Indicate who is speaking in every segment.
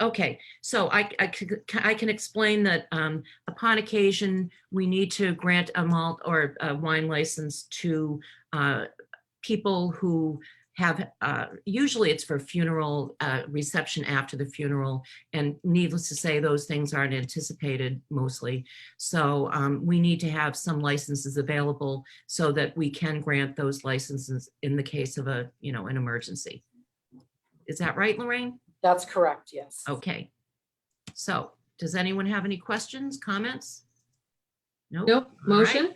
Speaker 1: Okay, so I, I could- I can explain that um, upon occasion, we need to grant a malt or a wine license to uh, people who have, uh, usually it's for funeral, uh, reception after the funeral. And needless to say, those things aren't anticipated mostly. So um, we need to have some licenses available so that we can grant those licenses in the case of a, you know, an emergency. Is that right, Lorraine?
Speaker 2: That's correct, yes.
Speaker 1: Okay. So, does anyone have any questions, comments? No.
Speaker 3: Nope, motion.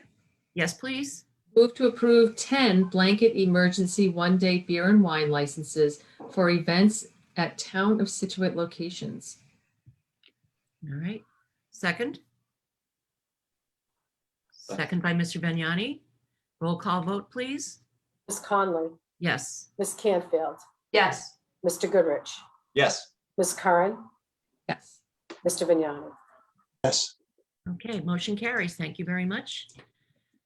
Speaker 1: Yes, please.
Speaker 3: Move to approve 10 blanket emergency one-day beer and wine licenses for events at Town of Situate locations.
Speaker 1: All right. Second? Second by Mr. Vignani. Roll call vote, please.
Speaker 2: Ms. Conley,
Speaker 1: Yes.
Speaker 2: Ms. Canfield,
Speaker 3: Yes.
Speaker 2: Mr. Goodrich,
Speaker 4: Yes.
Speaker 2: Ms. Curran,
Speaker 3: Yes.
Speaker 2: Mr. Vignani.
Speaker 4: Yes.
Speaker 1: Okay, motion carries. Thank you very much.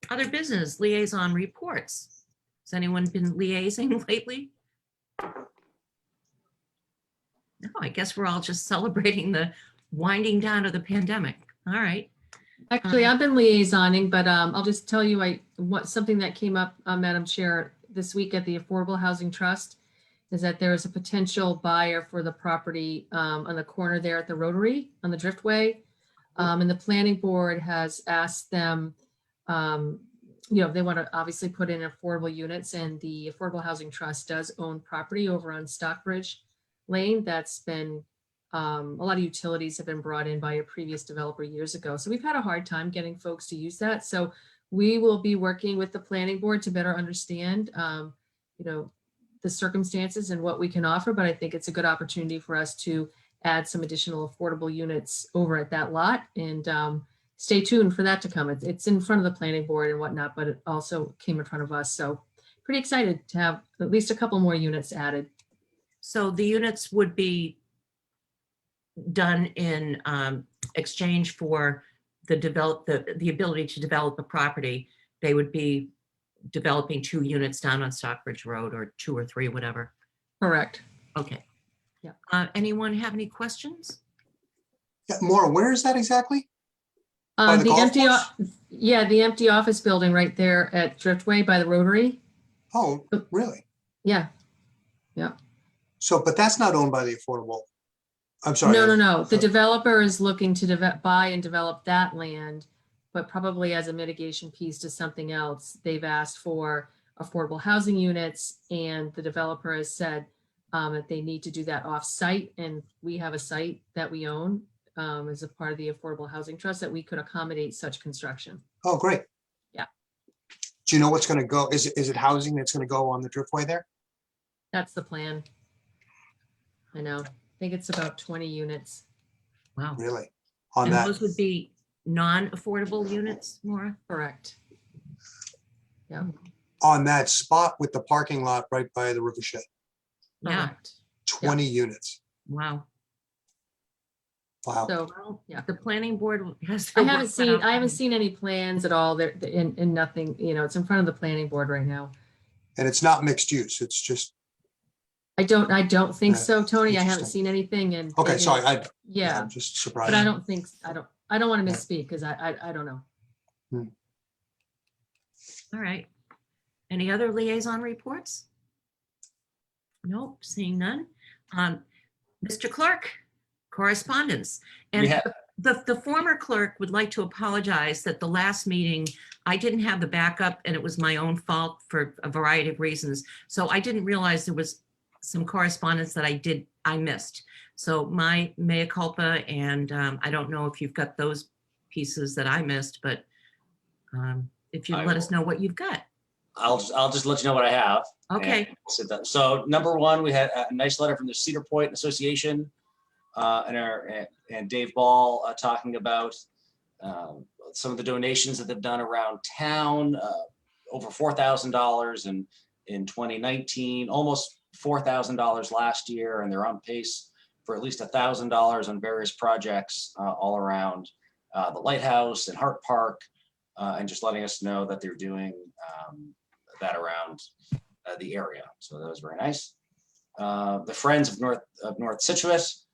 Speaker 1: Other business liaison reports. Has anyone been liaising lately? No, I guess we're all just celebrating the winding down of the pandemic. All right.
Speaker 3: Actually, I've been liaisoning, but um, I'll just tell you, I, what, something that came up, uh, Madam Chair, this week at the Affordable Housing Trust is that there is a potential buyer for the property um, on the corner there at the Rotary, on the Driftway. Um, And the planning board has asked them, um, you know, they want to obviously put in affordable units and the Affordable Housing Trust does own property over on Stockbridge Lane that's been um, a lot of utilities have been brought in by a previous developer years ago. So we've had a hard time getting folks to use that. So we will be working with the planning board to better understand, um, you know, the circumstances and what we can offer, but I think it's a good opportunity for us to add some additional affordable units over at that lot and, um, stay tuned for that to come. It's, it's in front of the planning board and whatnot, but it also came in front of us. So pretty excited to have at least a couple more units added.
Speaker 1: So the units would be done in um, exchange for the develop, the, the ability to develop a property. They would be developing two units down on Stockbridge Road or two or three, whatever.
Speaker 3: Correct.
Speaker 1: Okay.
Speaker 3: Yeah.
Speaker 1: Uh, Anyone have any questions?
Speaker 4: More. where is that exactly? By
Speaker 3: Um,
Speaker 4: the
Speaker 3: the
Speaker 4: golf
Speaker 3: empty, o-
Speaker 4: course?
Speaker 3: yeah, the empty office building right there at Driftway by the Rotary.
Speaker 4: Oh, really?
Speaker 3: Yeah,
Speaker 4: So, but that's not owned by the affordable. I'm sorry.
Speaker 3: no, no, no. The
Speaker 4: sorry.
Speaker 3: developer is looking to develop, buy and develop that land, but probably as a mitigation piece to something else. They've asked for affordable housing units and the developer has said um, that they need to do that off-site and we have a site that we own um, as a part of the Affordable Housing Trust that we could accommodate such construction.
Speaker 4: Oh, great.
Speaker 3: Yeah.
Speaker 4: Do you know what's going to go? Is, it is it housing that's going to go on the driftway there?
Speaker 3: That's the plan. I know. I think it's about 20 units.
Speaker 1: Wow.
Speaker 4: Really? On
Speaker 1: And
Speaker 4: that?
Speaker 1: those would be non-affordable units, Maura?
Speaker 3: Correct.
Speaker 4: on that spot with the parking lot right by the rivershed.
Speaker 1: Yeah,
Speaker 3: Correct.
Speaker 4: 20 units.
Speaker 1: wow.
Speaker 4: Wow.
Speaker 3: So
Speaker 1: Well,
Speaker 3: Yeah.
Speaker 1: The planning board has. to
Speaker 3: I
Speaker 1: work
Speaker 3: haven't
Speaker 1: that
Speaker 3: seen,
Speaker 1: out.
Speaker 3: I haven't seen any plans at all there and, and nothing, you know, it's in front of the planning board right now.
Speaker 4: And it's not mixed use. It's just,
Speaker 3: I don't, I don't think
Speaker 4: Yeah,
Speaker 3: so, Tony. I haven't
Speaker 4: interesting.
Speaker 3: seen anything and.
Speaker 4: okay,
Speaker 3: it
Speaker 4: sorry.
Speaker 3: is-
Speaker 4: I,
Speaker 3: Yeah,
Speaker 4: I'm just
Speaker 3: but I
Speaker 4: surprised.
Speaker 3: don't think, I don't, I don't want to
Speaker 4: Yeah.
Speaker 3: misspeak because I, I, I don't know.
Speaker 1: All right. Any other liaison reports? Nope, seeing none. Um, Mr. Clerk, correspondence.
Speaker 5: We
Speaker 1: And
Speaker 5: have-
Speaker 1: the, the former clerk would like to apologize that the last meeting, I didn't have the backup and it was my own fault for a variety of reasons. So I didn't realize there was some correspondence that I did, I missed. So my mea culpa, and um, I don't know if you've got those pieces that I missed, but um, if you
Speaker 5: I
Speaker 1: let us
Speaker 5: will.
Speaker 1: know what you've got.
Speaker 5: I'll just, I'll just let you know what I have.
Speaker 1: Okay,
Speaker 5: And sit down. So number one, we had a nice letter from the Cedar Point Association uh, and our, and- and Dave Ball uh, talking about um, some of the donations that they've done around town, uh, over four thousand dollars in in twenty nineteen, almost four thousand dollars last year, and they're on pace for at least a thousand dollars on various projects uh, all around uh, the lighthouse and Hart Park, uh, and just letting us know that they're doing um, that around uh, the area. So that was very nice. Uh, the Friends of North of North Situate